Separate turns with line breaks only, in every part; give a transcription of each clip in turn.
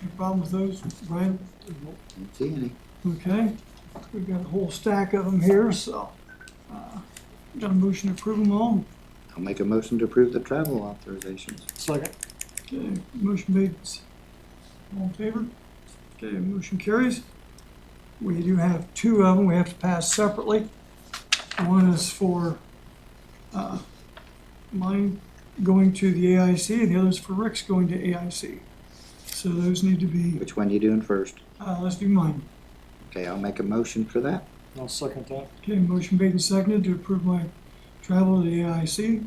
Any problem with those, Brian?
Don't see any.
Okay, we've got a whole stack of them here, so, uh, got a motion to approve them all.
I'll make a motion to approve the travel authorizations.
Second.
Okay, motion made, all in favor? Okay, motion carries. We do have two of them we have to pass separately. One is for, uh, mine going to the AIC, and the other is for Rick's going to AIC. So those need to be,
Which one you doing first?
uh, let's do mine.
Okay, I'll make a motion for that.
I'll second that.
Okay, motion made and seconded to approve my travel to the AIC.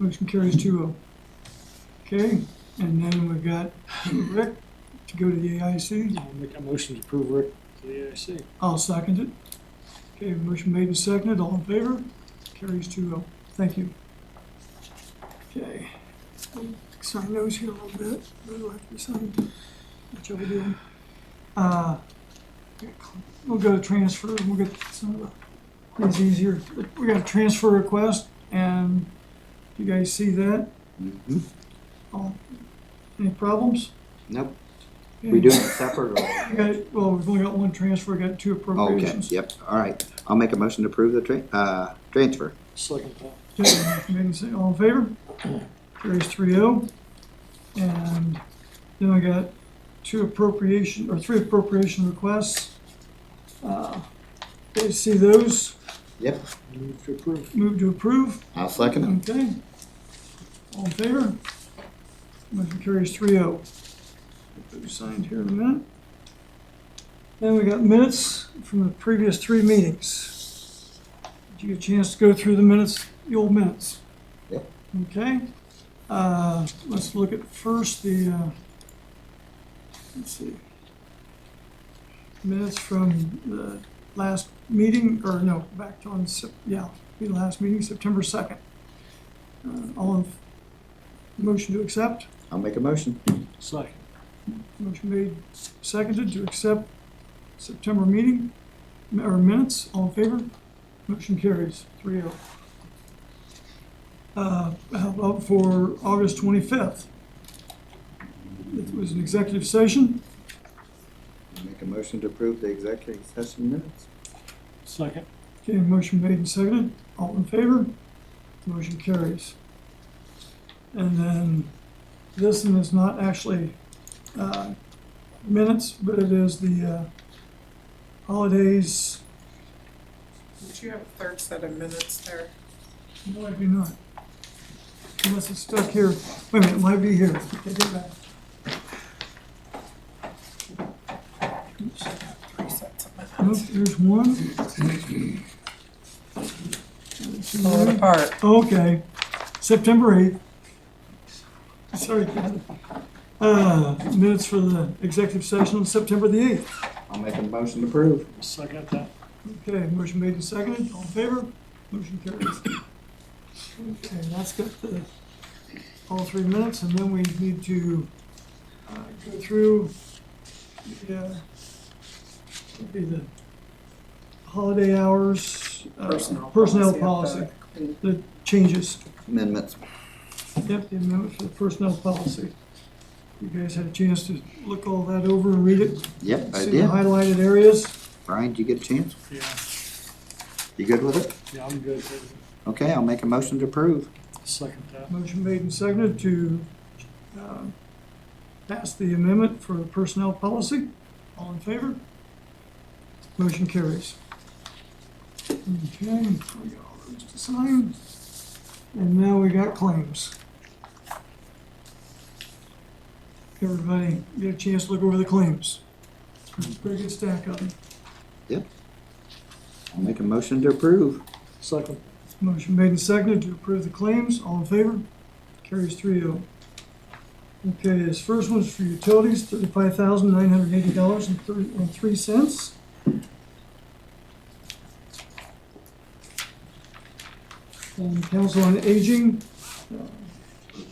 Motion carries two oh. Okay, and then we've got Rick to go to the AIC.
I'll make a motion to approve Rick to the AIC.
I'll second it. Okay, motion made and seconded, all in favor? Carries two oh. Thank you. Okay. Sign those here a little bit. Those will have to be signed. Whichever we do. Uh, We'll go to transfer, and we'll get some of the, things easier. We got a transfer request, and you guys see that?
Mhm.
All- Any problems?
Nope, we doing it separate or?
We got- Well, we've only got one transfer, we got two
Okay,
appropriations.
yep, all right. I'll make a motion to approve the tra- uh, transfer.
Second that.
Okay, maybe say all in favor? Carries three oh. And then I got two appropriation, or three appropriation requests. Uh, you see those,
Yep,
Move to approve.
move to approve,
I'll second it.
okay? All in favor? Motion carries three oh. Get those signed here in a minute. Then we got minutes from the previous three meetings. Did you get a chance to go through the minutes, the old minutes?
Yep.
Okay, uh, let's look at first the, uh, let's see. Minutes from the last meeting, or no, back on, Sep- yeah, the last meeting, September second. Uh, all in, motion to accept,
I'll make a motion.
Second.
motion made, seconded to accept September meeting, or minutes, all in favor? Motion carries, three oh. Uh, how about for August twenty-fifth? It was an executive session,
I'll Make a motion to approve the executive session minutes.
Second.
okay, motion made and seconded, all in favor? Motion carries. And then, this one is not actually, uh, minutes, but it is the, uh, holidays,
Did you have a third set of minutes there?
No, I do not. Unless it's stuck here. Wait a minute, it might be here. Okay, go back. Oops.
Three sets of
Nope,
minutes.
there's one. Mm-hmm.
Falling apart.
Okay, September eighth. Sorry, Ken. Uh, minutes for the executive session on September the eighth.
I'll make a motion to approve.
Second that.
Okay, motion made and seconded. All in favor? Motion carries. Okay, that's got the, all three minutes, and then we need to, uh, go through, the, uh, would be the holiday hours. uh, Personnel policy,
And
the changes.
Amendments.
Yep, the amendment for the personnel policy. You guys had a chance to look all that over and read it?
Yep, I
See the
did.
highlighted areas?
Brian, did you get a chance?
Yeah,
You good with it?
yeah, I'm good.
Okay, I'll make a motion to approve.
Second that.
Motion made and seconded to um, pass the amendment for personnel policy. All in favor? Motion carries. Okay, we got all those to sign. And now we got claims. Everybody get a chance to look over the claims. There's a Pretty good stack of them.
I'll make a motion to approve.
Second.
Motion made and seconded to approve the claims, all in favor? Carries three oh. Okay, this first one's for utilities, thirty-five thousand nine hundred eighty dollars and thirty, and three cents. And Council on Aging, uh,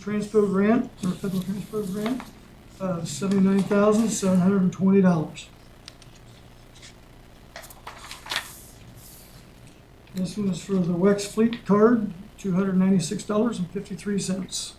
transpo grant, or federal transpo grant, uh, seventy-nine thousand seven hundred and twenty dollars. This one is for the Wex Fleet Card, two hundred ninety-six dollars and fifty-three cents.